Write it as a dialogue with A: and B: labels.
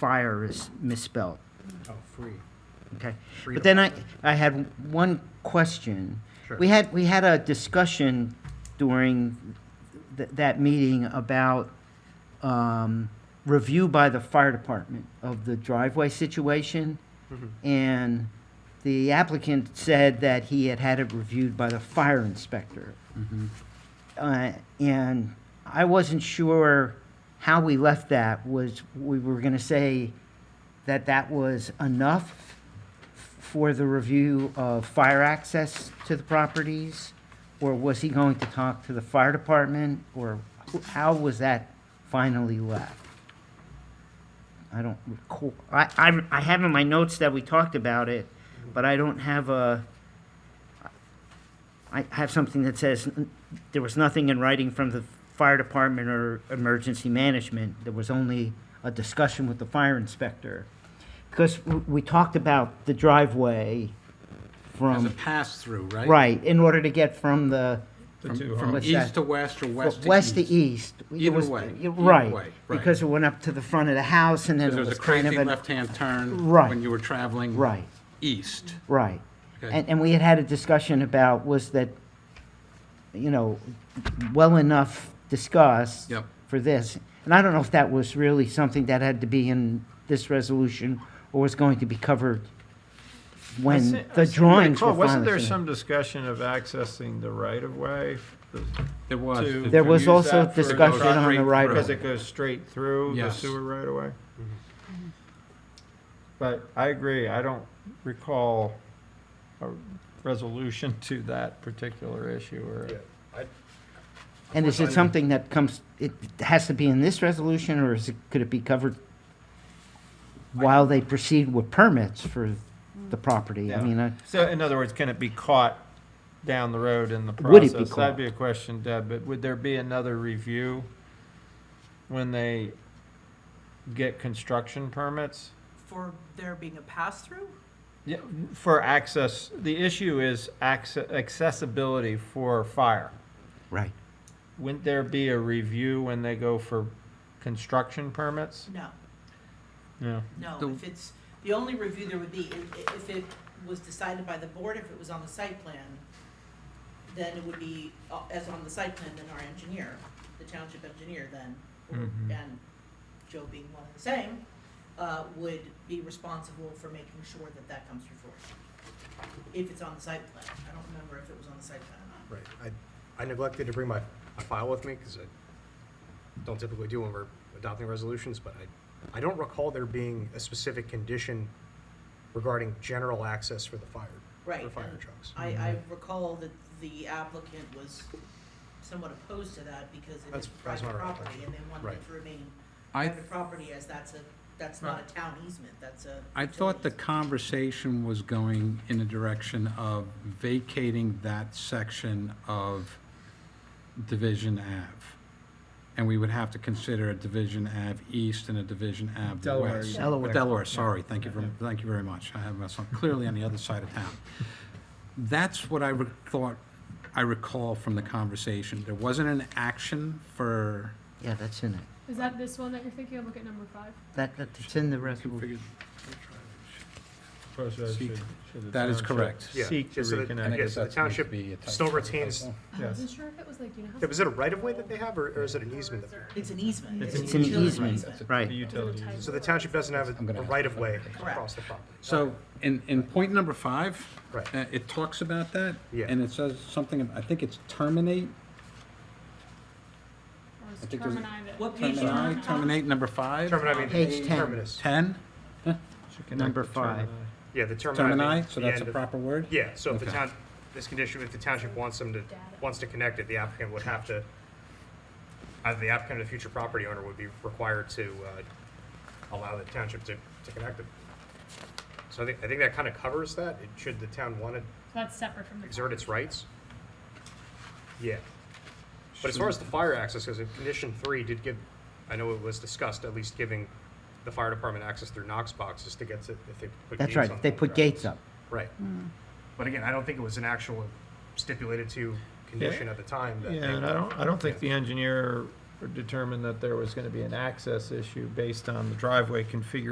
A: fire is misspelled,
B: Oh, free.
A: okay?
B: Free
A: But
B: to
A: then I, I had one question.
B: Sure.
A: We had, we had a discussion during th- that meeting about um, review by the fire department of the driveway situation.
B: Mm-hmm.
A: And the applicant said that he had had it reviewed by the fire inspector.
B: Mm-hmm.
A: Uh, And I wasn't sure how we left that, was we were going to say that that was enough for the review of fire access to the properties? Or was he going to talk to the fire department? Or wh- how was that finally left? I don't recall, I, I, I have in my notes that we talked about it, but I don't have a, I have something that says, n- there was nothing in writing from the fire department or emergency management. There was only a discussion with the fire inspector. Because w- we talked about the driveway
B: As a
A: from,
B: pass-through, right?
A: right, in order to get from the,
B: From-
C: To,
B: From
C: um,
A: What's that?
B: east to west or west to east?
A: west to east. It
B: Either
A: was-
B: way,
A: you're
B: either way,
A: Right,
B: right.
A: because it went up to the front of the house and then
B: Because
A: it
B: there
A: was
B: was a
A: kind of
B: crazy
A: a,
B: left-hand turn.
A: Right.
B: When you were traveling.
A: right.
B: East.
A: Right.
B: Okay.
A: And, and we had had a discussion about, was that, you know, well enough discussed
B: Yep.
A: for this. And I don't know if that was really something that had to be in this resolution or was going to be covered
C: I
A: when
C: se- I
A: the
C: seem to
A: drawings
C: recall,
A: were finally.
C: Wasn't there
A: finished.
C: some discussion of accessing the right-of-way?
B: There was.
C: To-
A: There
C: to
A: was
C: use
A: also
C: that for
A: discussion
B: those
A: on the
B: three
A: right.
B: roads?
C: Because it goes straight through the
B: Yes.
C: sewer right-of-way? But I agree, I don't recall a resolution to that particular issue or.
D: Yeah, I,
A: And is it something that comes, it has to be in this resolution or is it, could it be covered while they proceed with permits for the property? I
C: Yeah.
A: mean, I.
C: So in other words, can it be caught down the road in the
A: Would it
C: process?
A: be caught?
C: That'd be a question, Deb, but would there be another review when they get construction permits?
E: for there being a pass-through?
C: Yeah, for access, the issue is access, accessibility for fire.
A: Right.
C: Wouldn't there be a review when they go for construction permits?
E: No,
C: No.
E: no,
B: The-
E: if it's, the only review there would be, if, if it was decided by the board, if it was on the site plan, then it would be, uh, as on the site plan, then our engineer, the township engineer then, or-
C: Mhm.
E: and Joe being one and the same, uh, would be responsible for making sure that that comes through fruition. If it's on the site plan, I don't remember if it was on the site plan or not.
D: right, I, I neglected to bring my, my file with me, because I don't typically do when we're adopting resolutions, but I, I don't recall there being a specific condition regarding general access for the fire,
E: Right.
D: for fire
E: and
D: trucks.
E: I, I recall that the applicant was somewhat opposed to that because it
D: That's-
E: is
D: that's
E: private
D: what I recall.
E: property and they wanted it
D: Right.
E: to remain
B: I,
E: private property as that's a, that's not a town easement, that's a.
B: I thought the
E: utility
B: conversation was going in the direction of vacating that section of Division Ave. And we would have to consider a Division Ave East and a Division Ave West.
C: Delaware, yeah.
A: Delaware.
B: Or Delaware, sorry, thank you, ver- thank you very much. I have myself clearly on the other side of town. That's what I re- thought, I recall from the conversation. There wasn't an action for,
A: Yeah, that's in it.
F: Is that this one that you're thinking of? Look at number five.
A: That, that's in the resolution.
B: that is correct.
D: Yeah,
C: Seek to
D: just so that-
B: And I
D: Yeah,
C: reconnect.
B: guess
D: so the
B: that's going to
D: township
B: be a type-
D: still retains-
F: I
C: Yes.
F: wasn't sure if it was like, you know how.
D: Yeah, Was it a right-of-way that they have, or, or is it an easement? that-
E: easement. It's an easement.
C: It's
E: a
C: an
A: It's an
E: utility
A: easement,
C: That's a-
A: right.
C: The utilities.
D: So the township doesn't have
B: I'm gonna
D: a
B: have to
D: right-of-way
B: find
E: Correct.
D: across the property?
B: So, in, in point number five,
D: Right.
B: uh, it talks about that.
D: Yeah.
B: And it says something, I think it's terminate,
F: Or is
B: I think there's a-
F: Termini that-
E: What page are you
B: terminate,
E: on?
B: terminate, number five.
D: Termini, I mean,
A: Page 10.
D: terminus.
B: Ten,
C: To uh, connect
A: Number
C: the
A: five.
C: termini.
D: Yeah, the termini.
B: termini, so
D: the
B: that's a
D: end of-
B: proper word?
D: Yeah, so if the
B: Okay.
D: town, this condition, if the township wants them to, wants to connect it, the applicant would have to, either the applicant or the future property owner would be required to uh, allow the township to, to connect it. So I think, I think that kind of covers that. It- Should the town want to
F: So That's separate from the.
D: exert its rights? Yeah. But as far as the fire access goes, if condition three did give, I know it was discussed, at least giving the fire department access through Knox boxes to get to, if they put
A: That's
D: gates
A: right,
D: on
A: they
D: the
A: put
D: ground.
A: gates up.
D: Right.
C: Hmm.
D: But again, I don't think it was an actual stipulated to condition at the time that.
C: Yeah, and I don't, I don't think the engineer determined that there was gonna be an access issue based on the driveway configuration